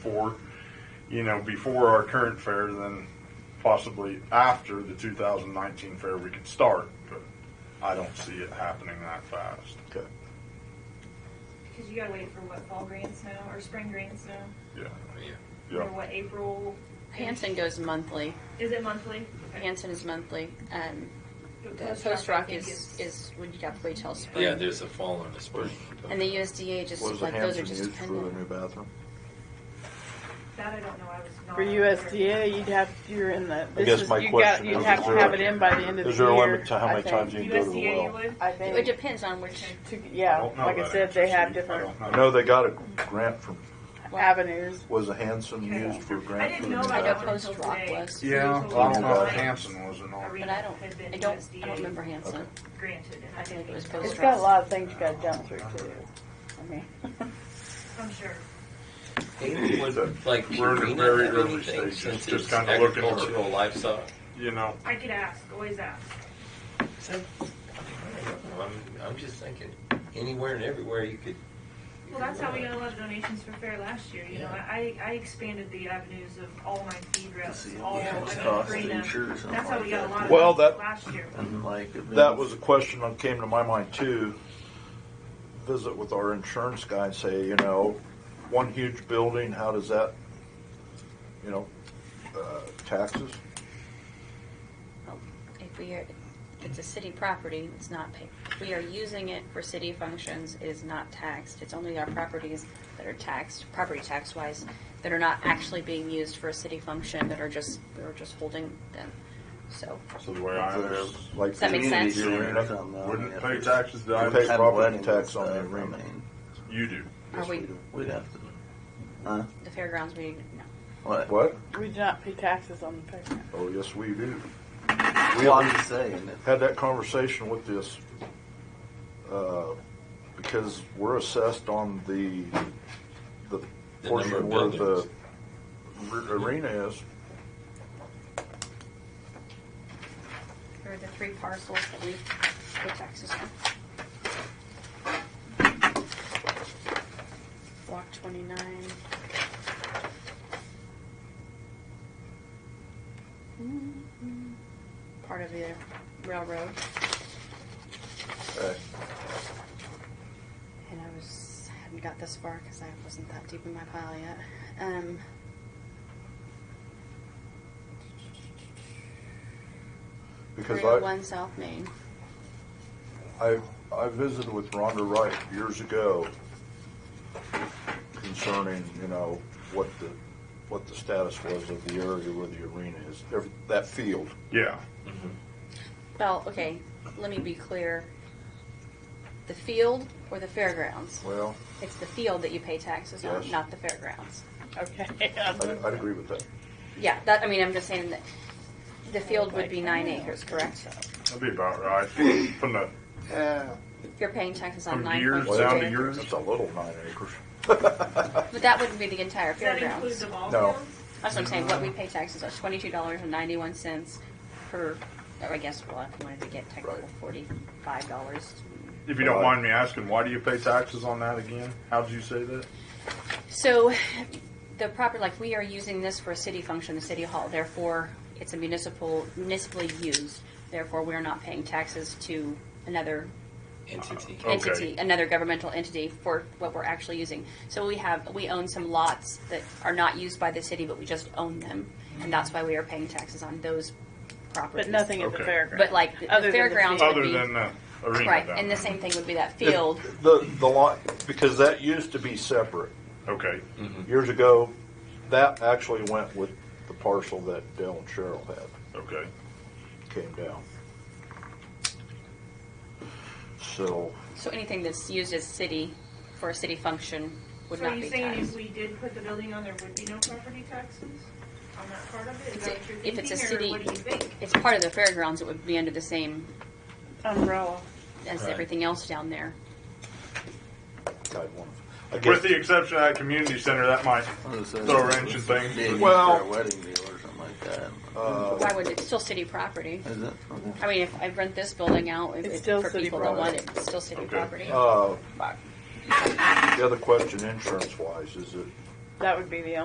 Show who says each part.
Speaker 1: for, you know, before our current fair, then possibly after the 2019 fair, we could start. But I don't see it happening that fast.
Speaker 2: Okay.
Speaker 3: Because you gotta wait for what, fall grants now, or spring grants now?
Speaker 1: Yeah.
Speaker 4: Yeah.
Speaker 1: Yeah.
Speaker 3: Or what, April?
Speaker 5: Hanson goes monthly.
Speaker 3: Is it monthly? Okay.
Speaker 5: Hanson is monthly. Um,
Speaker 3: But
Speaker 5: the Post Rock
Speaker 3: I think
Speaker 5: is, is, would you have to wait till spring?
Speaker 4: Yeah, there's a fall and a spring.
Speaker 5: And the USDA just,
Speaker 2: What is the
Speaker 5: like, those
Speaker 2: Hampton
Speaker 5: are just
Speaker 2: used for the
Speaker 5: dependent.
Speaker 2: new bathroom?
Speaker 3: That I don't know, I was not.
Speaker 6: For USDA, you'd have, you're in the,
Speaker 2: guess
Speaker 6: this is,
Speaker 2: my
Speaker 6: you got,
Speaker 2: question
Speaker 6: you'd
Speaker 2: is,
Speaker 6: have
Speaker 2: is
Speaker 6: to
Speaker 2: there
Speaker 6: have
Speaker 2: a-
Speaker 6: it in by the end of the year.
Speaker 2: Is there a limit to how
Speaker 6: I
Speaker 2: many
Speaker 6: think.
Speaker 2: times you can go to the
Speaker 3: USDA you
Speaker 2: well?
Speaker 3: would?
Speaker 6: I
Speaker 5: It
Speaker 6: think,
Speaker 5: depends on which,
Speaker 6: to-
Speaker 1: I
Speaker 6: yeah,
Speaker 1: don't know
Speaker 6: like I
Speaker 1: that
Speaker 6: said, they
Speaker 1: answer,
Speaker 6: have
Speaker 1: Steve.
Speaker 6: different
Speaker 1: I don't
Speaker 2: I know they got a grant from,
Speaker 6: avenues.
Speaker 2: was the Hanson
Speaker 3: Okay.
Speaker 2: used for a
Speaker 3: I
Speaker 2: grant
Speaker 3: didn't
Speaker 2: for the new
Speaker 3: know
Speaker 5: I
Speaker 3: about
Speaker 5: know
Speaker 3: that
Speaker 2: bathroom?
Speaker 3: one.
Speaker 5: Post Rock was.
Speaker 1: Yeah,
Speaker 3: Usually
Speaker 1: I don't know if
Speaker 3: it's
Speaker 1: Hanson was or not.
Speaker 5: But I don't,
Speaker 3: Had been
Speaker 5: I don't, I
Speaker 3: USDA.
Speaker 5: don't remember Hanson.
Speaker 2: Okay.
Speaker 3: Granted, and
Speaker 5: I think it was Post
Speaker 6: It's
Speaker 5: Rock.
Speaker 6: got a lot of things you gotta jump through too. I mean,
Speaker 3: I'm sure.
Speaker 4: Like
Speaker 1: We're in the
Speaker 4: Purina
Speaker 1: very
Speaker 4: and
Speaker 1: early
Speaker 4: anything,
Speaker 1: stages,
Speaker 4: since
Speaker 1: just
Speaker 4: it's
Speaker 1: kinda looking at-
Speaker 4: agricultural livestock.
Speaker 1: You know,
Speaker 3: I could ask, always ask.
Speaker 4: Is that- I don't know, I'm, I'm just thinking, anywhere and everywhere you could.
Speaker 3: Well, that's how we got a lot of donations for fair last year, you know, I, I expanded the avenues of all my feed routes, all, I
Speaker 7: yeah,
Speaker 3: mean,
Speaker 7: it's cost
Speaker 3: green
Speaker 7: to
Speaker 3: up.
Speaker 7: insure or something
Speaker 3: That's how
Speaker 7: like
Speaker 3: we got a
Speaker 7: that.
Speaker 3: lot
Speaker 2: Well,
Speaker 3: of
Speaker 2: that-
Speaker 3: that last year.
Speaker 7: And like it
Speaker 2: That
Speaker 7: means-
Speaker 2: was a question that came to my mind too. Visit with our insurance guy and say, you know, one huge building, how does that, you know, uh, taxes?
Speaker 5: If we are, it's a city property, it's not paid. We are using it for city functions, it is not taxed. It's only our properties that are taxed, property tax wise, that are not actually being used for a city function, that are just, we're just holding them. So,
Speaker 1: so the way I live,
Speaker 2: Like
Speaker 5: Does that make sense?
Speaker 7: Community arena or
Speaker 2: arena,
Speaker 7: something, though,
Speaker 1: wouldn't
Speaker 7: I mean,
Speaker 1: pay
Speaker 7: if
Speaker 1: taxes to
Speaker 7: it's-
Speaker 2: uh, Pay
Speaker 7: if it's
Speaker 2: property
Speaker 7: had
Speaker 2: tax on the
Speaker 7: weddings and
Speaker 2: arena.
Speaker 7: stuff, I mean,
Speaker 1: you do.
Speaker 5: are we,
Speaker 7: We'd have to, huh?
Speaker 5: the fairgrounds, we, no.
Speaker 7: What?
Speaker 2: what?
Speaker 6: we do not pay taxes on the payment.
Speaker 2: Oh, yes, we do.
Speaker 7: We all just saying that.
Speaker 2: had that conversation with this uh, because we're assessed on the the,
Speaker 4: The number
Speaker 2: portion
Speaker 4: of
Speaker 2: where the
Speaker 4: buildings.
Speaker 2: r- arena is.
Speaker 5: Here are the three parcels that we pay taxes on. Block twenty-nine. Mm-hmm. Part of the railroad,
Speaker 2: Uh,
Speaker 5: and I was, hadn't got this far because I wasn't that deep in my pile yet. Um.
Speaker 2: because
Speaker 5: 301 South Main.
Speaker 2: I I I visited with Rhonda Wright years ago concerning you know what the what the status was of the area where the arena is every, that field.
Speaker 1: Yeah.
Speaker 4: Mm-hmm.
Speaker 5: Well, okay, let me be clear. The field or the fairgrounds?
Speaker 2: Well,
Speaker 5: It's the field that you pay taxes on,
Speaker 2: Yes.
Speaker 5: not the fairgrounds.
Speaker 6: Okay.
Speaker 2: I'd, I'd agree with that.
Speaker 5: Yeah, that, I mean, I'm just saying that the field would be nine acres, correct?
Speaker 1: That'd be about right. From the
Speaker 2: Yeah,
Speaker 5: You're paying taxes on
Speaker 1: From
Speaker 5: nine
Speaker 1: yours
Speaker 5: point two
Speaker 1: down to
Speaker 5: acres.
Speaker 1: yours?
Speaker 2: it's a little nine acres.
Speaker 5: But that wouldn't be the entire
Speaker 3: Does that include
Speaker 5: fairgrounds.
Speaker 3: the ball
Speaker 2: No.
Speaker 3: fields?
Speaker 5: That's what I'm saying, what we pay taxes on, twenty-two dollars and ninety-one cents per, or I guess, well, if you wanted to get technical,
Speaker 2: Right.
Speaker 5: forty-five dollars.
Speaker 1: If you don't mind me asking, why do you pay taxes on that again? How'd you say that?
Speaker 5: So, the proper, like, we are using this for a city function, the city hall, therefore, it's a municipal, municipally used, therefore, we're not paying taxes to another
Speaker 4: Entity.
Speaker 1: Okay.
Speaker 5: entity, another governmental entity for what we're actually using. So we have, we own some lots that are not used by the city, but we just own them. And that's why we are paying taxes on those properties.
Speaker 6: But nothing at the
Speaker 1: Okay.
Speaker 6: fairgrounds.
Speaker 5: But like the
Speaker 6: Other than the
Speaker 5: fairgrounds
Speaker 6: field.
Speaker 5: would
Speaker 1: Other
Speaker 5: be-
Speaker 1: than the arena.
Speaker 5: Right,
Speaker 1: down
Speaker 5: and the
Speaker 1: there.
Speaker 5: same thing would be that field.
Speaker 2: The, the lot, because that used to be separate.
Speaker 1: Okay.
Speaker 2: Years ago, that actually went with the parcel that Dale and Cheryl had,
Speaker 1: Okay.
Speaker 2: came down. So,
Speaker 5: So anything that's used as city, for a city function, would
Speaker 3: So are
Speaker 5: not
Speaker 3: you
Speaker 5: be
Speaker 3: saying if
Speaker 5: taxed.
Speaker 3: we did put the building on, there would be no property taxes on that part of it? Is
Speaker 5: It's
Speaker 3: that
Speaker 5: a-
Speaker 3: what you're
Speaker 5: If it's
Speaker 3: thinking,
Speaker 5: a
Speaker 3: or
Speaker 5: city,
Speaker 3: what do you think?
Speaker 5: it's part of the fairgrounds, it would be under the same
Speaker 6: Umbrella.
Speaker 5: as
Speaker 4: Right.
Speaker 5: everything else down there.
Speaker 2: I'd want, I
Speaker 1: With
Speaker 2: guess,
Speaker 1: the exception of that community center, that might throw a wrench in things.
Speaker 7: Big
Speaker 1: but-
Speaker 2: Well-
Speaker 7: for a wedding deal or something like that.
Speaker 2: uh,
Speaker 5: Why would, it's still city property.
Speaker 7: Is it?
Speaker 5: I mean, if I rent this building out, if,
Speaker 6: It's
Speaker 5: if
Speaker 6: still
Speaker 5: for
Speaker 6: city
Speaker 5: people that want
Speaker 6: property.
Speaker 5: it, it's still city
Speaker 1: Okay.
Speaker 5: property.
Speaker 2: uh,
Speaker 5: But-
Speaker 2: the other question, insurance wise, is it
Speaker 6: That would be the